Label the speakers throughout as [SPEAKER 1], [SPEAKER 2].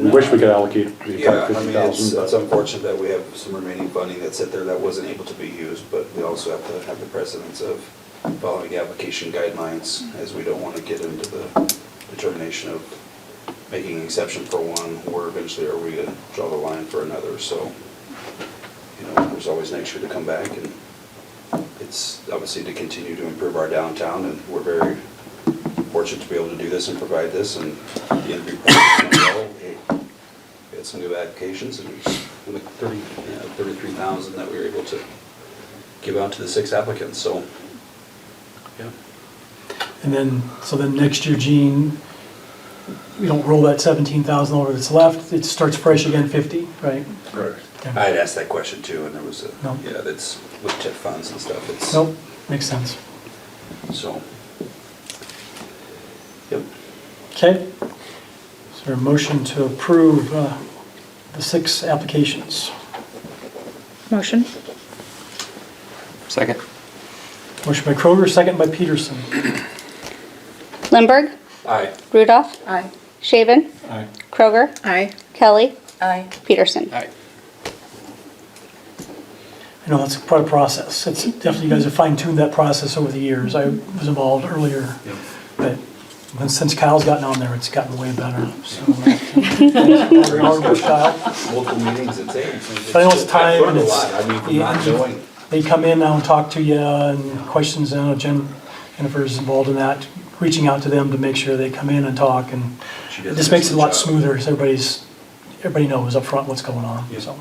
[SPEAKER 1] We wish we could allocate the
[SPEAKER 2] Yeah,
[SPEAKER 1] entire
[SPEAKER 2] I
[SPEAKER 1] fifty
[SPEAKER 2] mean, it's, it's uh,
[SPEAKER 1] thousand,
[SPEAKER 2] unfortunate that we have some remaining funding that's sit there that wasn't able to be used, but we also have to have the precedence of following the application guidelines, as we don't want to get into the determination of making an exception for one, or eventually are we going to draw the line for another, so, you know, there's always next year to come back, and it's obviously to continue to improve our downtown, and we're very fortunate to be able to do this and provide this, and the interview process went well. It- we had some new applications, and we like thirty, yeah, thirty-three thousand that we were able to give out to the six applicants, so, yeah.
[SPEAKER 3] And then, so then next year, Gene, we don't roll that seventeen thousand over that's left, it starts fresh again fifty, right?
[SPEAKER 2] Correct.
[SPEAKER 3] Okay.
[SPEAKER 2] I had asked that question too, and there was a,
[SPEAKER 3] No.
[SPEAKER 2] yeah, that's with TIF funds and stuff, it's,
[SPEAKER 3] Nope, makes sense.
[SPEAKER 2] so. Yep.
[SPEAKER 3] Okay. Is there a motion to approve uh, the six applications?
[SPEAKER 4] Motion?
[SPEAKER 5] Second.
[SPEAKER 3] Motion by Kroger, second by Peterson.
[SPEAKER 6] Lindberg,
[SPEAKER 2] Aye.
[SPEAKER 6] Rudolph,
[SPEAKER 4] Aye.
[SPEAKER 6] Shaven,
[SPEAKER 1] Aye.
[SPEAKER 6] Kroger,
[SPEAKER 4] Aye.
[SPEAKER 6] Kelly,
[SPEAKER 4] Aye.
[SPEAKER 6] Peterson.
[SPEAKER 5] Aye.
[SPEAKER 3] I know that's quite a process. It's definitely, you guys have fine-tuned that process over the years. I was involved earlier, but since Kyle's gotten on there, it's gotten way better. So, Kyle.
[SPEAKER 2] Multiple meetings, it's, it's.
[SPEAKER 3] But I know it's time
[SPEAKER 2] I've learned a
[SPEAKER 3] and it's-
[SPEAKER 2] lot, I mean, from not
[SPEAKER 3] yeah.
[SPEAKER 2] knowing,
[SPEAKER 3] they come in now and talk to you and questions, and I know Jen, Jennifer's involved in that, reaching out to them to make sure they come in and talk, and
[SPEAKER 2] She does
[SPEAKER 3] it
[SPEAKER 2] an
[SPEAKER 3] just makes it a lot
[SPEAKER 2] excellent job.
[SPEAKER 3] smoother, so everybody's, everybody knows upfront what's going on,
[SPEAKER 2] Yeah.
[SPEAKER 3] so.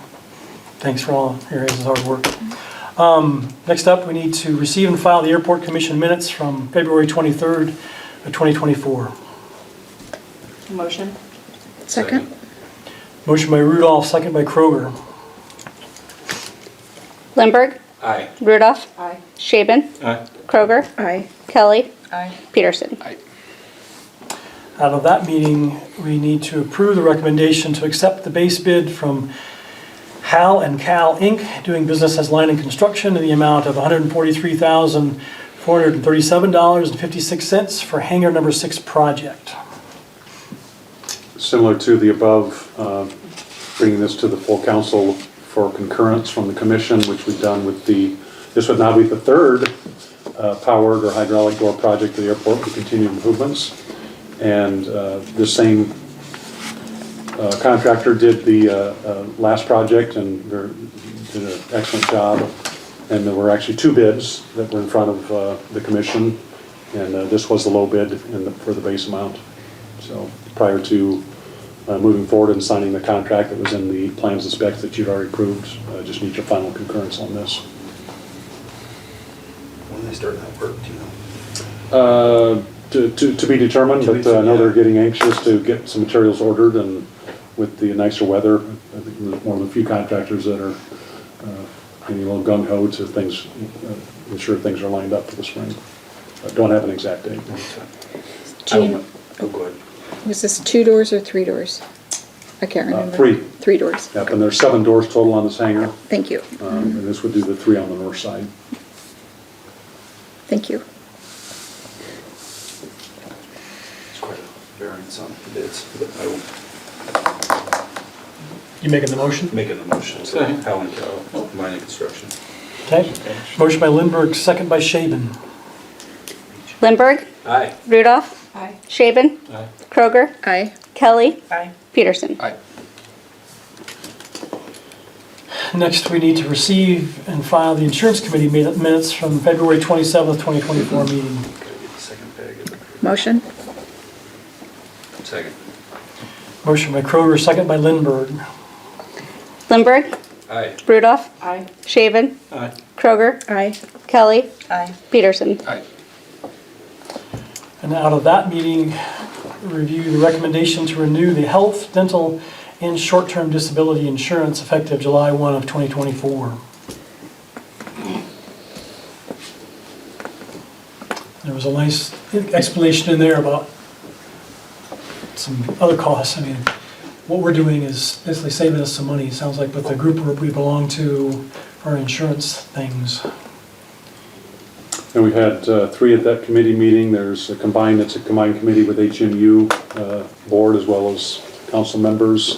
[SPEAKER 3] Thanks for all your guys' hard work. Um, Next up, we need to receive and file the airport commission minutes from February 23rd of 2024.
[SPEAKER 4] Motion? Second?
[SPEAKER 3] Motion by Rudolph, second by Kroger.
[SPEAKER 6] Lindberg,
[SPEAKER 2] aye.
[SPEAKER 6] Rudolph,
[SPEAKER 4] Aye.
[SPEAKER 6] Shaven,
[SPEAKER 1] Aye.
[SPEAKER 6] Kroger,
[SPEAKER 4] Aye.
[SPEAKER 6] Kelly,
[SPEAKER 4] Aye.
[SPEAKER 6] Peterson.
[SPEAKER 5] Aye.
[SPEAKER 3] Out of that meeting, we need to approve the recommendation to accept the base bid from Hal and Cal Inc., doing business as Line and Construction, in the amount of $143,437.56 for hangar number six project.
[SPEAKER 1] similar to the above, uh, bringing this to the full council for concurrence from the commission, which we've done with the, this would now be the third uh, powered or hydraulic door project at the airport with continued improvements. And uh, the same uh, contractor did the uh, uh, last project and they're- did an excellent job. And there were actually two bids that were in front of uh, the commission, and uh, this was the low bid in the- for the base amount. So prior to uh, moving forward and signing the contract that was in the plans and specs that you'd already approved, uh, just need your final concurrence on this.
[SPEAKER 2] When they start that work, do you know?
[SPEAKER 1] Uh, To to- to be determined,
[SPEAKER 2] To be
[SPEAKER 1] but uh, I know
[SPEAKER 2] determined,
[SPEAKER 1] they're
[SPEAKER 2] yeah.
[SPEAKER 1] getting anxious to get some materials ordered and with the nicer weather, I think we're one of the few contractors that are uh, getting a little gung ho to things, uh, ensure things are lined up for the spring. I Don't have an exact date.
[SPEAKER 4] Jean,
[SPEAKER 2] Oh, go ahead.
[SPEAKER 4] was this two doors or three doors? I can't
[SPEAKER 1] Uh,
[SPEAKER 4] remember.
[SPEAKER 1] three.
[SPEAKER 4] Three doors.
[SPEAKER 1] Yep, And there's seven doors total on this hangar,
[SPEAKER 4] Thank you,
[SPEAKER 1] um, and this would do the three on the north side.
[SPEAKER 4] thank you.
[SPEAKER 2] It's quite a variance on the bids, but I will
[SPEAKER 3] You making the motion?
[SPEAKER 2] make a motion for Helen Cal, mining construction.
[SPEAKER 3] Okay. Motion by Lindberg, second by Shaven.
[SPEAKER 6] Lindberg,
[SPEAKER 2] Aye.
[SPEAKER 6] Rudolph,
[SPEAKER 4] Aye.
[SPEAKER 6] Shaven, Kroger,
[SPEAKER 4] Aye.
[SPEAKER 6] Kelly,
[SPEAKER 4] Aye.
[SPEAKER 6] Peterson.
[SPEAKER 5] Aye.
[SPEAKER 3] Next, we need to receive and file the insurance committee mi- minutes from February 27th, 2024 meeting.
[SPEAKER 2] Gotta get the second bag.
[SPEAKER 4] Motion?
[SPEAKER 2] Second.
[SPEAKER 3] Motion by Kroger, second by Lindberg.
[SPEAKER 6] Lindberg,
[SPEAKER 2] Aye.
[SPEAKER 6] Rudolph,
[SPEAKER 4] Aye.
[SPEAKER 6] Shaven, Kroger,
[SPEAKER 4] Aye.
[SPEAKER 6] Kelly,
[SPEAKER 4] Aye.
[SPEAKER 6] Peterson.
[SPEAKER 5] Aye.
[SPEAKER 3] And out of that meeting, review the recommendation to renew the health, dental, and short-term disability insurance effective July 1 of 2024. There was a nice explanation in there about some other costs. I mean, what we're doing is basically saving us some money, it sounds like, with the group we belong to, our insurance things.
[SPEAKER 1] And we've had uh, three at that committee meeting. There's a combined, it's a combined committee with HMU uh, Board as well as council members